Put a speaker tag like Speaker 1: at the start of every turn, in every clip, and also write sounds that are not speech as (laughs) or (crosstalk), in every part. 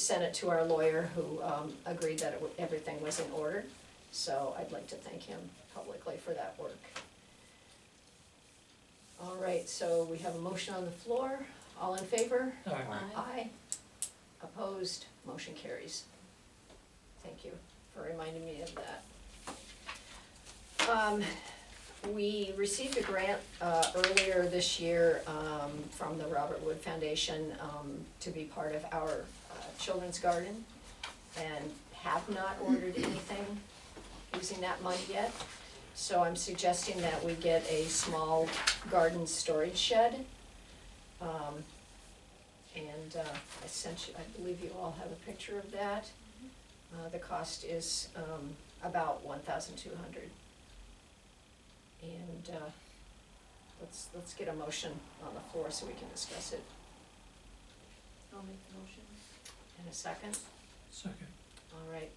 Speaker 1: sent it to our lawyer, who um, agreed that it wa- everything was in order. So I'd like to thank him publicly for that work. All right, so we have a motion on the floor. All in favor?
Speaker 2: Aye.
Speaker 1: Aye. Opposed, motion carries. Thank you for reminding me of that. Um, we received a grant, uh, earlier this year, um, from the Robert Wood Foundation, um, to be part of our, uh, children's garden. And have not ordered anything using that money yet. So I'm suggesting that we get a small garden storage shed. Um, and uh, I sent you, I believe you all have a picture of that. Uh, The cost is um, about one thousand two hundred. And uh, let's, let's get a motion on the floor so we can discuss it
Speaker 3: I'll make the motion.
Speaker 1: in a second.
Speaker 2: Second.
Speaker 1: All right.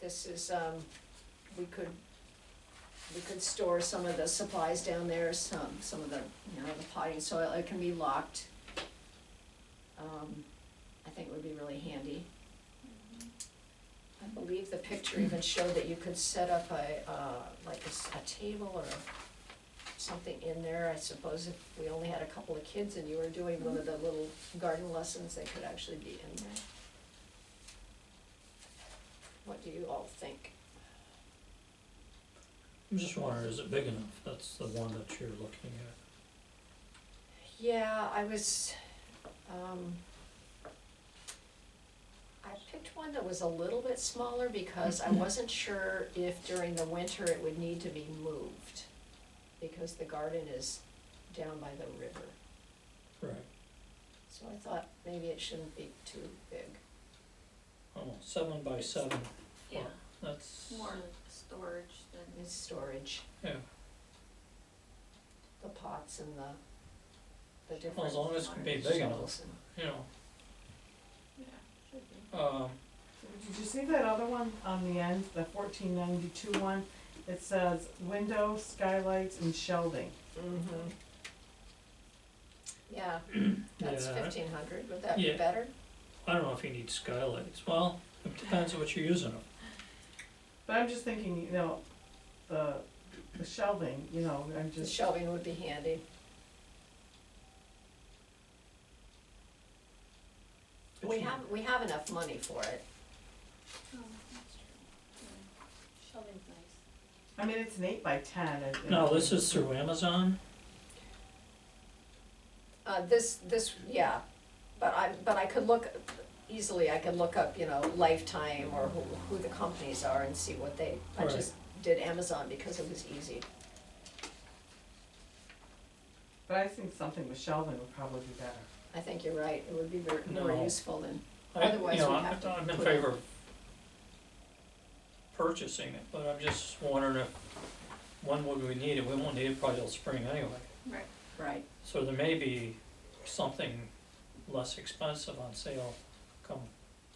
Speaker 1: This is, um, we could, we could store some of the supplies down there, some, some of the, you know, the potting soil, it can be locked. Um, I think would be really handy. I believe the picture even showed that you could set up a, uh, like a s- a table or something in there. I suppose if we only had a couple of kids and you were doing one of the little garden lessons, they could actually be in there. What do you all think?
Speaker 2: I'm just wondering, is it big enough? That's the one that you're looking at.
Speaker 1: Yeah, I was, um, I picked one that was a little bit smaller because
Speaker 2: (laughs)
Speaker 1: I wasn't sure if during the winter it would need to be moved. Because the garden is down by the river,
Speaker 2: Right.
Speaker 1: so I thought maybe it shouldn't be too big.
Speaker 2: Oh, seven by seven, Yeah. that's,
Speaker 3: More like storage than,
Speaker 1: It's storage,
Speaker 2: yeah,
Speaker 1: the pots and the, the different.
Speaker 2: Well, as long as it can be big enough.
Speaker 1: shovels and-
Speaker 2: you know,
Speaker 3: yeah, should be.
Speaker 2: um,
Speaker 4: Did you see that other one on the end, the fourteen ninety-two one? It says window, skylights, and shelving.
Speaker 1: Mm-hmm.
Speaker 2: (clears throat)
Speaker 1: Yeah, that's
Speaker 2: Yeah.
Speaker 1: fifteen hundred, would that be
Speaker 2: Yeah.
Speaker 1: better?
Speaker 2: I don't know if you need skylights. Well, it depends on what you're using them.
Speaker 4: But I'm just thinking, you know, the, the shelving, you know, I'm
Speaker 1: The
Speaker 4: just,
Speaker 1: shelving would be handy.
Speaker 2: But
Speaker 1: We
Speaker 2: you-
Speaker 1: have, we have enough money for it.
Speaker 3: Oh, that's true. Yeah. Shelving's nice.
Speaker 4: I mean, it's an eight by ten. and- and-
Speaker 2: No, this is through Amazon.
Speaker 1: Uh, this, this, yeah, but I, but I could look, easily, I could look up, you know, Lifetime or who, who the companies are and see what they, I
Speaker 2: Right.
Speaker 1: just did Amazon because it was easy.
Speaker 4: But I think something with shelving would probably be better.
Speaker 1: I think you're right, it would be very, more
Speaker 2: No.
Speaker 1: useful than,
Speaker 2: I-
Speaker 1: Otherwise,
Speaker 2: you know,
Speaker 1: we
Speaker 2: I'm-
Speaker 1: have to
Speaker 2: I'm in
Speaker 1: put it-
Speaker 2: favor of purchasing it, but I'm just wondering if, when would we need it? We won't need it probably till spring anyway.
Speaker 3: Right.
Speaker 1: right,
Speaker 2: So there may be something less expensive on sale come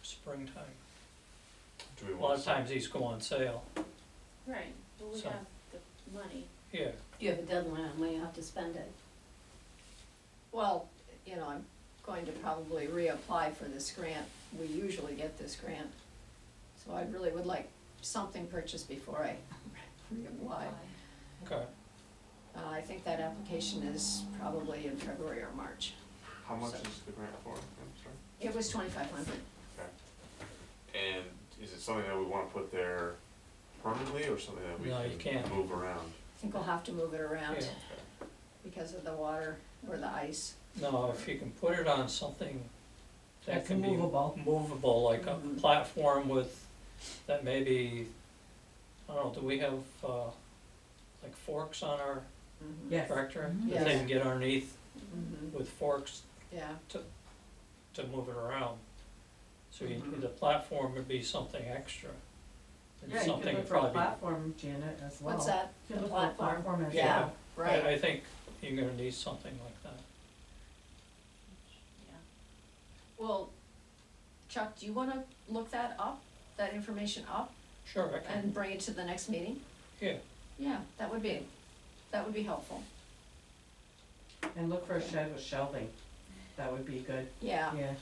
Speaker 2: springtime.
Speaker 5: Do we
Speaker 2: A
Speaker 5: want
Speaker 2: lot
Speaker 5: to
Speaker 2: of times these go on sale,
Speaker 3: Right, well, we
Speaker 2: So-
Speaker 3: have the money.
Speaker 2: yeah,
Speaker 6: You have a deadline on when you have to spend it.
Speaker 1: well, you know, I'm going to probably reapply for this grant, we usually get this grant. So I really would like something purchased before I reapply.
Speaker 2: okay.
Speaker 1: Uh, I think that application is probably in February or March.
Speaker 5: How much
Speaker 1: So-
Speaker 5: is the grant for? I'm
Speaker 1: It was twenty-five hundred.
Speaker 5: sorry. And is it something that we want to put there permanently or something that we
Speaker 2: No, you
Speaker 5: can
Speaker 2: can't.
Speaker 5: move around?
Speaker 1: I think we'll have to move it around
Speaker 2: Yeah.
Speaker 1: because of the water or
Speaker 3: Mm-hmm.
Speaker 1: the ice.
Speaker 2: No, if you can put it on something that
Speaker 4: That's
Speaker 2: can be
Speaker 4: movable. Mm-hmm.
Speaker 2: movable, like a
Speaker 1: Mhm.
Speaker 2: platform with, that maybe, I don't know, do we have, uh, like forks on our
Speaker 1: Mhm.
Speaker 4: Yes.
Speaker 2: tractor?
Speaker 4: Mhm.
Speaker 2: That they
Speaker 1: Yes.
Speaker 2: can get underneath
Speaker 3: Mm-hmm.
Speaker 1: Mhm.
Speaker 2: with forks
Speaker 1: Yeah,
Speaker 2: to move it around. So you,
Speaker 1: Mhm.
Speaker 2: the platform would be something extra. And
Speaker 4: Mm-hmm. Yeah, you
Speaker 2: something
Speaker 4: could look
Speaker 2: would
Speaker 4: for a
Speaker 2: probably be-
Speaker 4: platform, Janet, as well.
Speaker 1: what's that?
Speaker 4: You could
Speaker 1: The
Speaker 4: look for a
Speaker 1: platform?
Speaker 4: platform as
Speaker 2: Yeah.
Speaker 4: well.
Speaker 1: Right,
Speaker 2: I, I think you're gonna need something like that.
Speaker 3: Yeah.
Speaker 1: well, Chuck, do you wanna look that up, that information up
Speaker 2: Sure, I can,
Speaker 1: and bring it to the next meeting?
Speaker 2: yeah,
Speaker 1: Yeah, that would be, that would be helpful.
Speaker 4: And look for a shed with shelving. That would be good,
Speaker 1: Yeah,
Speaker 4: yeah.